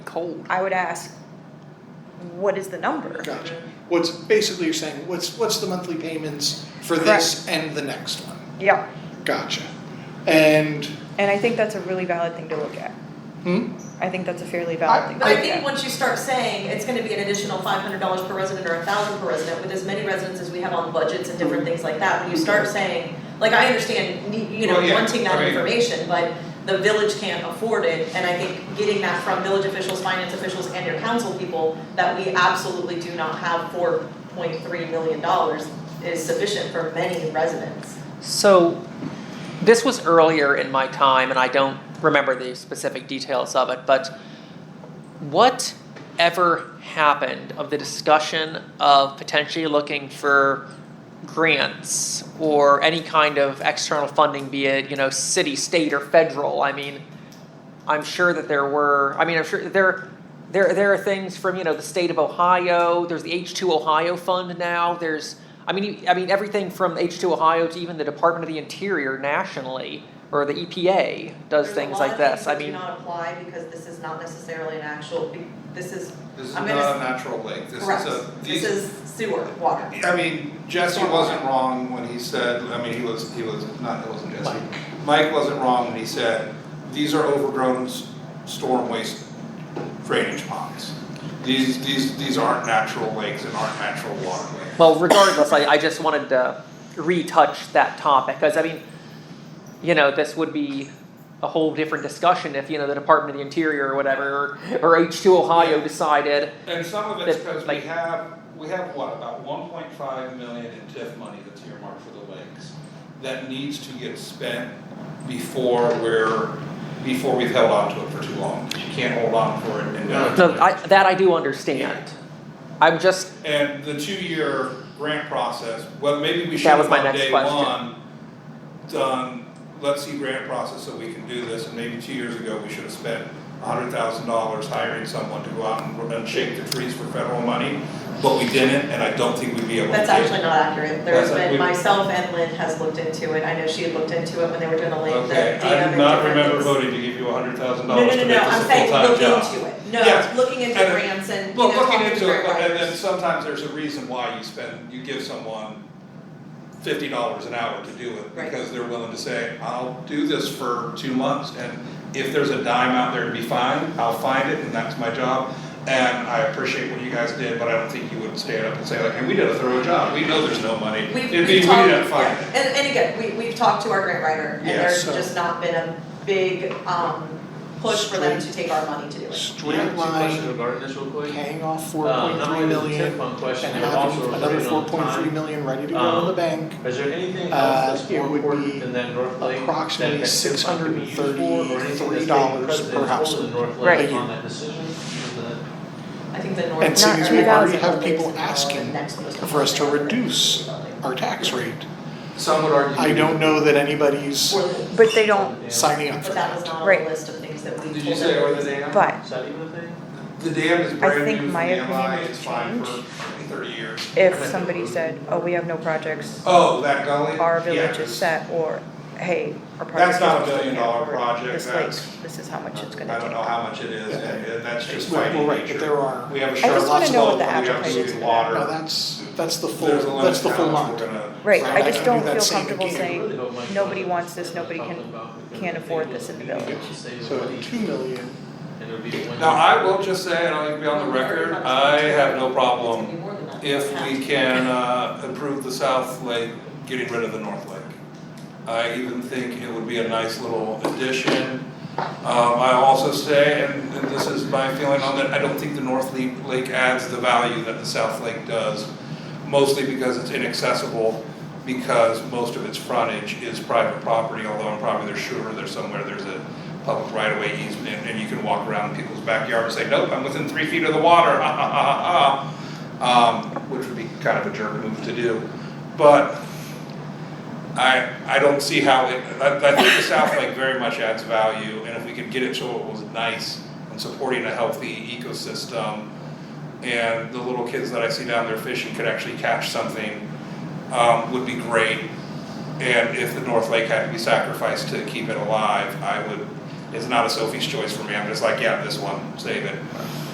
cold. I would ask, what is the number? Gotcha. What's, basically you're saying, what's, what's the monthly payments for this and the next one? Yeah, Gotcha. And, and I think that's a really valid thing to look at. hmm, I think that's a fairly I- valid thing to But I look think at. once you start saying it's gonna be an additional five hundred dollars per resident or a thousand per resident, with as many residents as we have on budgets and different things like that, when you start saying, like, I understand, ne- you know, Well, yeah, wanting that right. information, but the village can't afford it, and I think getting that from village officials, finance officials, and your council people, that we absolutely do not have four point three million dollars is sufficient for many residents. So, this was earlier in my time, and I don't remember the specific details of it, but what ever happened of the discussion of potentially looking for grants or any kind of external funding, be it, you know, city, state, or federal? I mean, I'm sure that there were, I mean, I'm sure there, there, there are things from, you know, the state of Ohio, there's the H2 Ohio Fund now, there's, I mean, you- I mean, everything from H2 Ohio to even the Department of the Interior nationally, or the EPA does things like this, I mean, There's a lot of things that do not apply because this is not necessarily an actual, be- this is, This is I'm not gonna a natural lake, this correct, is a, this these, is sewer, water. I mean, Jesse wasn't wrong when he said, I mean, he was, he was, not, it wasn't Jesse. Mike. Mike wasn't wrong when he said, these are overgrown s- storm waste drainage ponds. These, these, these aren't natural lakes and aren't natural waterways. well, regardless, I, I just wanted to retouch that topic, cause I mean, you know, this would be a whole different discussion if, you know, the Department of the Interior or whatever, or H2 Ohio decided, And some of it's That, because we like- have, we have what, about one point five million in TIF money that's earmarked for the lakes. That needs to get spent before we're, before we've held on to it for too long. You can't hold on for it and not. No, I, that I do understand. I'm just, And the two-year grant process, well, maybe we should That was have my on next day question. one, done, let's see grant process so we can do this, and maybe two years ago, we should have spent a hundred thousand dollars hiring someone to go out and, and shake the trees for federal money, but we didn't, and I don't think we'd be able to do it. That's actually not accurate, there's That's- we- been, myself and Lynn has looked into it, I know she had looked into it when they were doing the lake, the Okay, I dam do and not different remember things. voting to give you a hundred thousand No, no, dollars no, to make no, this a I'm full-time saying job. looking into it, Yes. no, looking into And- grants and, you Well, know, looking talking to into it, grant but and writers. then sometimes there's a reason why you spend, you give someone fifty dollars an hour to do it, Right. because they're willing to say, I'll do this for two months, and if there's a dime out there to be found, I'll find it, and that's my job. And I appreciate what you guys did, but I don't think you would stand up and say like, hey, we did a thorough job, we know there's no money, it'd We've, be, we we've didn't talked, find it. yeah, and, and again, we, we've talked to our grant writer, and Yeah, there's so- just not been a big, um, push for them to take our money to do it. straight I have two questions line, regarding this real quick. paying off four Uh, point not three only the million, TIF fund question, and but having also another related four on point three time. million ready to go in the Um, bank. Is there anything else Uh, that's it more would be important than that North Lake? that approximately that TIF fund could be used for, or anything $633 that's per taking precedence over household. the North Right. Lake on that decision? Is that- I think the North. And seeing as we already North- have people North- asking uh, Next one is- for us to reduce Our tax rate. Some would argue. I don't know that anybody's Or the- But they don't, Yeah. signing up for But that was that. not on Right. the list of things that we told them. Did you say or the dam? but Is that even a thing? The dam is brand think new from my the opinion MI, would it's fine for change. 20, thirty years. if somebody said, oh, we have no projects, Oh, that gully? our Yeah, village is 'cause set, or, hey, our project That's is not a looking billion at dollar for project, this lake, that's, this is how much it's I gonna don't know take. how much it is, and and that's just Well, fighting right, but there nature. are, We have a just short wanna lot know what slope, the we have appetite is sweet for water. no, that's, that's the full, There's a limit that's the to how full much amount. we're gonna- Right, Right, I I just can don't do that feel same comfortable again. I really saying, don't mind nobody going wants into this, what we're nobody talking can- about, because can't I think afford it this would in be the village. able to save So money, two million, and it would be one- Now, I will just say, and I'll be on the record, I have no problem if we can uh, improve the South Lake, getting rid of the North Lake. I even think it would be a nice little addition. Um, I also say, and and this is my feeling on it, I don't think the North Le- Lake adds the value that the South Lake does, mostly because it's inaccessible, because most of its frontage is private property, although I'm probably there's sure there's somewhere there's a public right-of-way easement, and you can walk around people's backyard and say, nope, I'm within three feet of the water, ah, ah, ah, ah, ah, um, which would be kind of a jerk move to do. But I, I don't see how it, I, I think the South Lake very much adds value, and if we could get it so it was nice and supporting a healthy ecosystem, and the little kids that I see down there fishing could actually catch something, um, would be great. And if the North Lake had to be sacrificed to keep it alive, I would, it's not a Sophie's choice for me, I'm just like, yeah, this one, save it.